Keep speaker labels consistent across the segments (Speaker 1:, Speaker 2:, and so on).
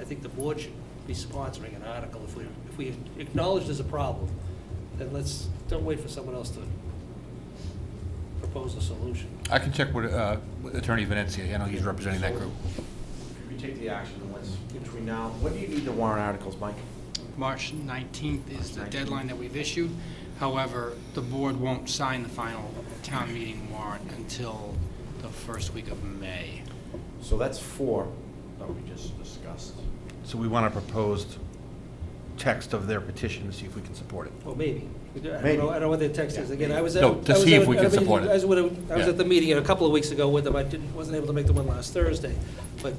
Speaker 1: I think the board should be sponsoring an article. If we, if we acknowledge there's a problem, then let's, don't wait for someone else to propose a solution.
Speaker 2: I can check with uh, with Attorney Venencia, I know he's representing that group.
Speaker 3: If you take the action, then what's between now, what do you need the warrant articles, Mike?
Speaker 4: March 19th is the
Speaker 3: 19th.
Speaker 4: deadline that we've issued. However, the board won't sign the final town meeting warrant until the first week of May.
Speaker 3: So that's four that we just discussed.
Speaker 5: So we want a proposed text of their petition to see if we can support it.
Speaker 1: Well, maybe. I don't
Speaker 3: Maybe.
Speaker 1: know, I don't know what their text is. Again, I was at.
Speaker 2: No, to
Speaker 1: I was
Speaker 2: see
Speaker 1: at-
Speaker 2: if we
Speaker 1: I
Speaker 2: can
Speaker 1: mean,
Speaker 2: support it.
Speaker 1: I was at, I was
Speaker 2: Yeah.
Speaker 1: at the meeting a couple of weeks ago with them. I didn't, wasn't able to make the one last Thursday. But,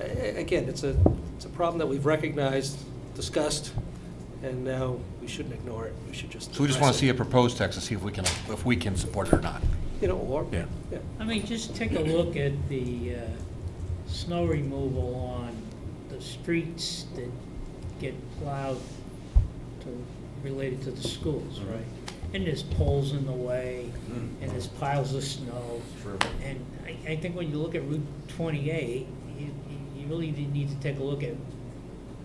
Speaker 1: a- a- again, it's a, it's a problem that we've recognized, discussed, and now we shouldn't ignore it. We should just.
Speaker 2: So we just want
Speaker 1: address
Speaker 2: to
Speaker 1: it.
Speaker 2: see a proposed text and see if we can, if we can support it or not.
Speaker 1: You know, or.
Speaker 2: Yeah.
Speaker 6: I mean, just take a look at the uh, snow removal on the streets that get plowed to, related to the schools, right? And there's poles in the way, and there's piles of snow.
Speaker 3: True.
Speaker 6: And I, I think when you look at Route twenty-eight, you, you- you really do need to take a look at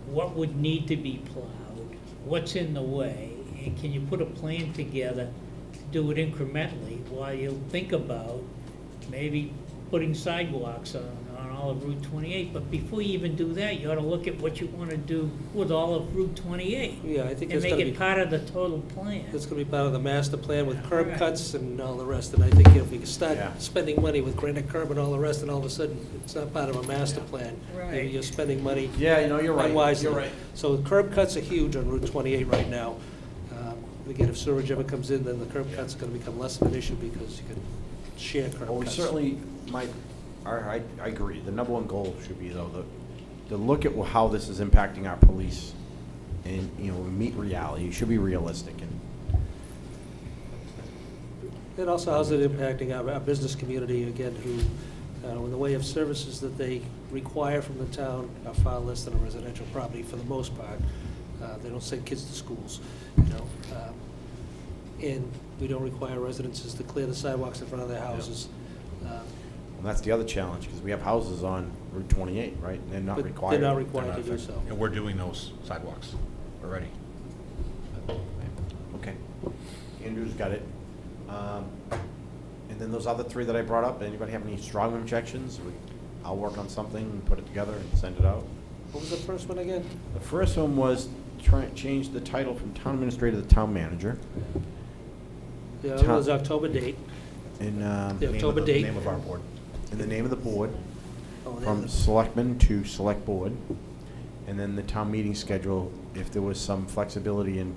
Speaker 6: what would need to be plowed, what's in the way, and can you put a plan together to do it incrementally while you think about maybe putting sidewalks on, on all of Route twenty-eight, but before you even do that, you ought to look at what you want to do with all of Route twenty-eight.
Speaker 1: Yeah, I think
Speaker 6: And
Speaker 1: that's
Speaker 6: make
Speaker 1: gonna
Speaker 6: it
Speaker 1: be,
Speaker 6: part of the total plan.
Speaker 1: that's gonna be part of the master plan with curb
Speaker 6: Right.
Speaker 1: cuts and all the rest. And I think if we could start
Speaker 3: Yeah.
Speaker 1: spending money with granite curb and all the rest, and all of a sudden, it's not part of a master plan. Maybe
Speaker 6: Right.
Speaker 1: you're spending money
Speaker 3: Yeah, you know, you're right,
Speaker 1: unwisely.
Speaker 3: you're right.
Speaker 1: So curb cuts are huge on Route 28 right now. Um, and Again, if sewerage ever comes in, then the curb cuts are gonna become less of an issue because you can share curb cuts.
Speaker 3: Well, we certainly, my, our- I, I agree, the number one goal should be though, the, to look at how this is impacting our police and, you know, meet reality, you should be realistic and,
Speaker 1: And also, how's it impacting our, our business community again, who, uh, in the way of services that they require from the town are far less than a residential property for the most part. Uh, they don't send kids to schools, you know, um, and we don't require residences to clear the sidewalks in front of their houses. Uh,
Speaker 3: and that's the other challenge, because we have houses on Route twenty-eight, right, and they're not
Speaker 1: But they're
Speaker 3: required.
Speaker 1: not required to do so.
Speaker 2: And we're doing those sidewalks already.
Speaker 3: Okay. Andrew's got it. Um, And then those other three that I brought up, anybody have any strong objections? We- I'll work on something, and put it together and send it out.
Speaker 1: What was the first one again?
Speaker 3: The first one was try, change the title from town administrator to town manager.
Speaker 1: Yeah, it
Speaker 3: Town-
Speaker 1: was October date.
Speaker 3: And, um,
Speaker 1: Yeah, October date.
Speaker 5: Name of our board.
Speaker 3: and the name of the board,
Speaker 1: Oh, they-
Speaker 3: from selectmen to select board. And then the town meeting schedule, if there was some flexibility in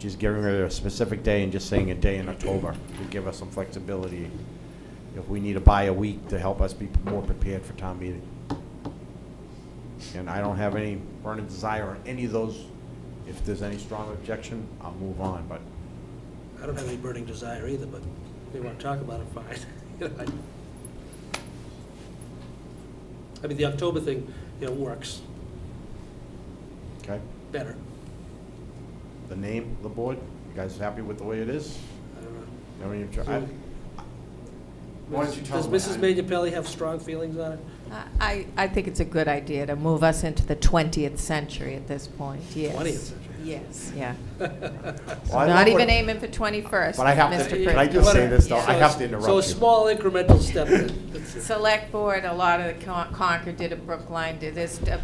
Speaker 3: just getting rid of a specific day and just saying a day in October, to give us some flexibility. If we need to buy a week to help us be more prepared for town meeting. And I don't have any burning desire on any of those. If there's any strong objection, I'll move on, but
Speaker 1: I don't have any burning desire either, but if they want to talk about it, fine. You know, I- I mean, the October thing, you know, works
Speaker 3: Okay,
Speaker 1: better.
Speaker 3: the name, of the board, you guys happy with the way it is?
Speaker 1: I don't know.
Speaker 3: I mean, if- I- Why don't you tell them?
Speaker 1: Does Mrs. Major have strong feelings on it?
Speaker 7: I, I think it's a good idea to move us into the 20th century at this point, yes.
Speaker 1: 20th century.
Speaker 7: Yes, yeah.
Speaker 3: Well, I
Speaker 7: Not
Speaker 3: love
Speaker 7: even
Speaker 3: what-
Speaker 7: aiming for 21st,
Speaker 3: But I have to-
Speaker 7: Mr.
Speaker 3: but I
Speaker 7: Pritchard.
Speaker 3: just say this, though,
Speaker 1: So
Speaker 3: I
Speaker 1: it's-
Speaker 3: have to interrupt
Speaker 1: So
Speaker 3: you.
Speaker 1: a small incremental step. then. That's it.
Speaker 7: Select Board, a lot of the Con- Concord did it, Brookline did, there's uh,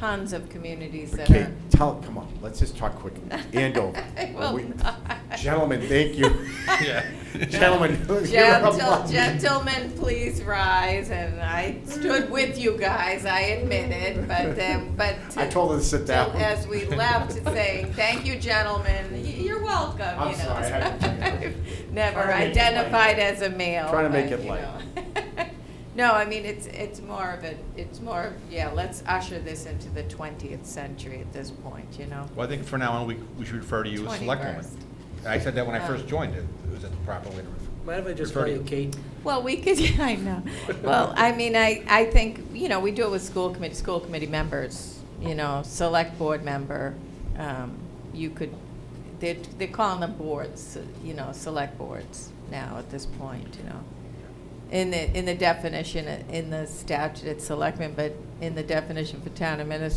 Speaker 7: tons of communities that
Speaker 3: Okay,
Speaker 7: are.
Speaker 3: tell, come on, let's just talk quick. Andover.
Speaker 7: I will
Speaker 3: We-
Speaker 7: not.
Speaker 3: Gentlemen, thank you.
Speaker 2: Yeah.
Speaker 3: Gentlemen. give it up.
Speaker 7: Gentle, gentlemen, please rise, and I stood with you guys, I admit it, but, uh, but.
Speaker 3: I told her to sit down.
Speaker 7: As we left, saying, thank you, gentlemen, Y- you're welcome, you know.
Speaker 3: I'm sorry, I had to do it.
Speaker 7: Never
Speaker 3: Trying to make it
Speaker 7: identified
Speaker 3: light.
Speaker 7: as a male.
Speaker 3: Trying to make
Speaker 7: but,
Speaker 3: it
Speaker 7: you know. No, I mean, it's, it's more of a, it's more, of yeah, let's usher this into the twentieth century at this point, you know?
Speaker 2: Well, I think for now on, we, we should refer to you as selectwoman.
Speaker 7: 21st.
Speaker 2: I said that when I
Speaker 7: Oh.
Speaker 2: first joined, it was that the proper way to refer.
Speaker 1: Mind if I just
Speaker 2: Refer
Speaker 1: call
Speaker 2: to
Speaker 1: you Kate?
Speaker 7: Well, we could, yeah, I know. Well, I mean, I, I think, you know, we do it with school committee, school committee members, you know, select board member. um, You could, they're, they're calling them boards, you know, select boards now at this point, you know. In the, in the definition, in the statute, it's selectmen, but in the definition for town administrator